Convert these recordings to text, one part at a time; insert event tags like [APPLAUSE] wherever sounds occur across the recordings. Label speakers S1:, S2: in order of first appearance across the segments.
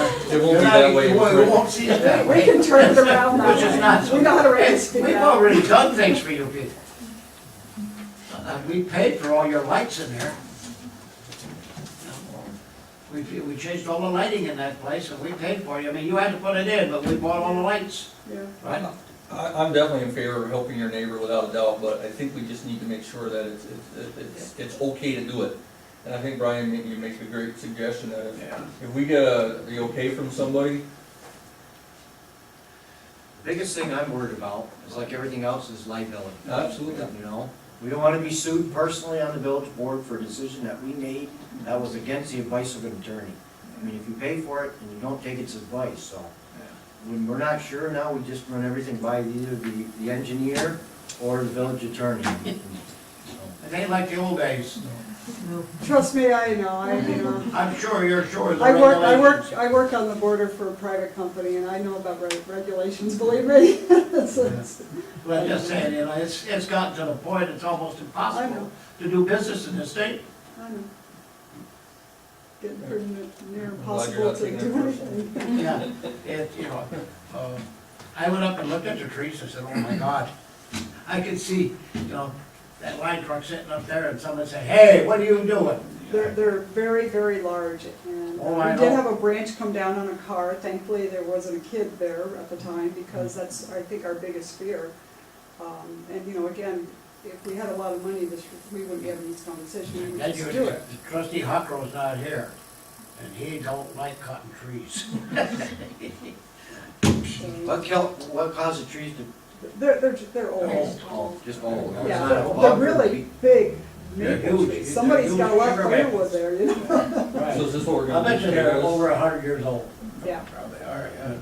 S1: It won't be that way.
S2: It won't- it won't see it that
S3: We
S2: way.
S3: can turn it around now.
S2: Which is not-
S3: We know how to raise it
S2: We've
S3: now.
S2: already done things for you people. Uh, We paid for all your lights in there. We, we changed all the lighting in that place and we paid for you. I mean, you had to put it in, but we bought all the lights,
S3: Yeah.
S2: right?
S1: I, I'm definitely in favor of helping your neighbor without a doubt, but I think we just need to make sure that it's, it's, it's, it's okay to do it. And I think Brian, maybe you make a great suggestion that if,
S2: Yeah.
S1: if we get a, the okay from somebody,
S4: Biggest thing I'm worried about is like everything else is liability.
S1: Absolutely.
S4: You know, we don't wanna be sued personally on the village board for a decision that we made that was against the advice of an attorney. I mean, if you pay for it and you don't take its advice, so. When we're not sure now, we just run everything by either the, the engineer or the village attorney.
S2: It ain't like the old days.
S3: Trust me, I know, I, you know.
S2: I'm sure you're sure of the
S3: I work, I work,
S2: regulations.
S3: I work on the border for a private company and I know about reg- regulations, believe me. [LAUGHS] It's- it's-
S2: But I'm just saying, you know, it's, it's gotten to the point, it's almost
S3: I
S2: impossible
S3: know.
S2: to do business in this state.
S3: I know. Getting pretty n- near
S1: I'm glad you're
S3: impossible
S1: not
S3: to
S1: taking
S3: do
S1: it personally.
S3: anything.
S2: Yeah, it, you know, uh, I went up and looked at the trees, I said, oh my God. I could see, you know, that line truck sitting up there and someone said, hey, what are you
S3: They're,
S2: doing?
S3: they're very, very large and
S2: Oh, I
S3: uh, we did
S2: know.
S3: have a branch come down on a car. Thankfully, there wasn't a kid there at the time because that's, I think, our biggest fear. Um, and you know, again, if we had a lot of money, this, we wouldn't be having this conversation. We would
S2: That's
S3: just do
S2: your,
S3: it.
S2: trustee Huckrow's not here, and he don't like cutting trees. [LAUGHS]
S3: So,
S4: What kill, what caused the trees to,
S3: They're, they're, they're old.
S2: Oh,
S4: just all?
S2: Yeah,
S3: Yeah,
S2: they're-
S3: they're really big
S2: They're
S3: maple
S2: huge.
S3: trees. Somebody's got a lot of
S2: They're huge.
S3: firewood there, you know? [LAUGHS]
S1: so
S2: right.
S1: is this what we're
S2: I
S1: gonna do?
S2: bet you they're over a hundred years old.
S3: Yeah.
S2: Probably are, yeah.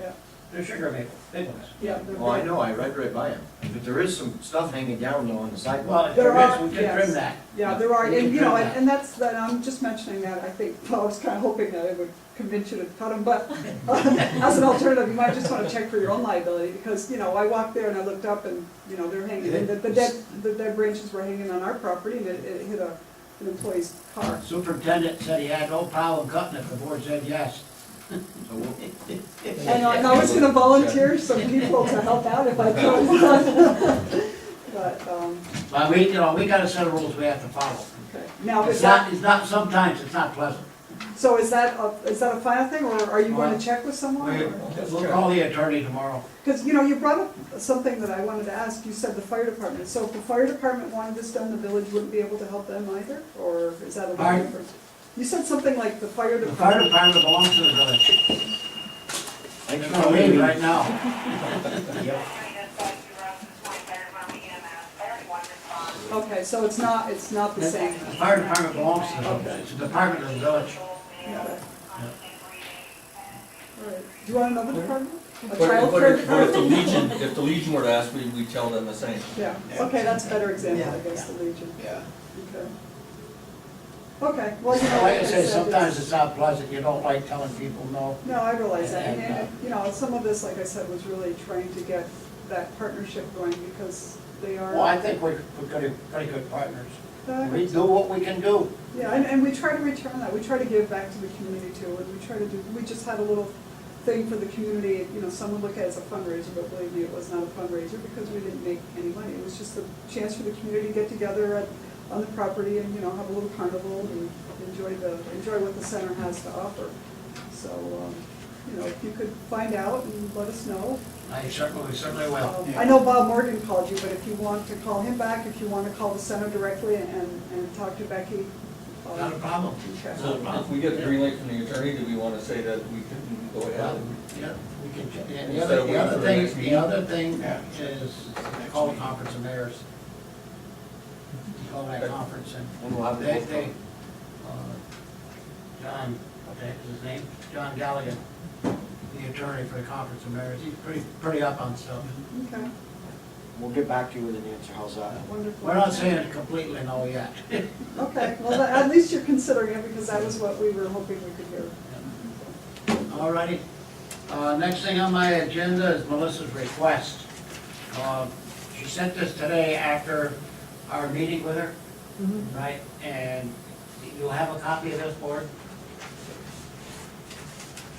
S3: Yeah.
S2: They're sugar maple, big ones.
S3: Yeah, they're
S4: Oh, I
S3: big.
S4: know, I read right by them, but there is some stuff hanging down though on the
S2: Well,
S4: sidewalk.
S2: if
S3: There
S2: there is,
S3: are-
S2: we can
S3: yes.
S2: trim that.
S3: Yeah, there are,
S2: We can
S3: and you know,
S2: trim
S3: and and that's, that, I'm just mentioning that, I think, well, I was kind of hoping that it would convince you to cut them, but [LAUGHS] uh, as an alternative, you might just want to check for your own liability, because, you know, I walked there and I looked up and, you know, they're hanging, and the the dead, the dead branches were hanging on our property, and it, it hit a, an employee's car.
S2: Superintendent said he had no problem cutting it, the board said yes.
S4: So we'll-
S3: And I- and I was gonna volunteer some people to help out if I could. [LAUGHS] But, um,
S2: But we, you know, we got a set of rules we have to follow.
S3: okay, now, is
S2: It's
S3: that,
S2: not, it's not, sometimes it's not pleasant.
S3: So is that, a- is that a final thing, or are you going to check with
S2: We-
S3: someone?
S2: We'll call the attorney tomorrow.
S3: Because, you know, you brought up something that I wanted to ask, you said the fire department, so if the fire department wanted this done, the village wouldn't be able to help them either, or is that a little
S2: Pardon?
S3: different? You said something like the fire
S2: The fire
S3: department,
S2: department belongs to the village.
S4: Thanks
S2: It's
S4: for
S2: gonna leave
S4: leaving.
S2: right now.
S4: Yep.
S3: okay, so it's not, it's not the
S2: The
S3: same.
S2: fire department belongs to the
S3: Okay.
S2: village. It's a department of the village.
S3: Yeah. All right. Do you want another department? A
S1: But
S3: child
S1: but
S3: care
S1: if- but if the
S3: department?
S1: Legion, if the Legion were to ask, we, we tell them the same.
S3: Yeah, okay, that's a better example, I guess, the Legion. Yeah. Okay. Okay, well, you know.
S2: Like I said,
S3: it's-
S2: sometimes it's not pleasant. You don't like telling people no.
S3: No, I realize that, and, and, you know, some of this, like I said, was really trying to get that partnership going, because they are.
S2: Well, I think we're, we're pretty, pretty good partners.
S3: Uh,
S2: We do what we can do.
S3: Yeah, and, and we try to return that, we try to give back to the community too, and we try to do, we just had a little thing for the community, you know, some would look at it as a fundraiser, but believe me, it was not a fundraiser, because we didn't make any money, it was just a chance for the community to get together at, on the property and, you know, have a little carnival and enjoy the, enjoy what the center has to offer. So, um, you know, if you could find out and let us know,
S2: I certainly, we certainly will.
S3: Um, I know Bob Morgan called you, but if you want to call him back, if you want to call the center directly and, and talk to Becky. uh,
S2: Not a problem.
S3: okay.
S1: So if we get the green light from the attorney, do we wanna say that we can go ahead?
S2: Yeah, we can, ch- and the
S1: Instead
S2: other,
S1: of
S2: the
S1: waiting for
S2: other
S1: the next
S2: thing, the
S1: meeting.
S2: other thing is call a conference of mayors. Call that conference and
S4: And we'll have
S2: they,
S4: it.
S2: they, uh, John, that's his name, John Galligan, the attorney for the conference of mayors, he's pretty, pretty up on stuff.
S3: Okay,
S4: We'll get back to you with an answer, how's that?
S3: wonderful.
S2: We're not saying completely no yet. [LAUGHS]
S3: Okay, well, tha- at least you're considering it, because that was what we were hoping we could hear.
S2: All righty. Uh, Next thing on my agenda is Melissa's request. Uh, She sent this today after our meeting with her, right? And you'll have a copy of this board?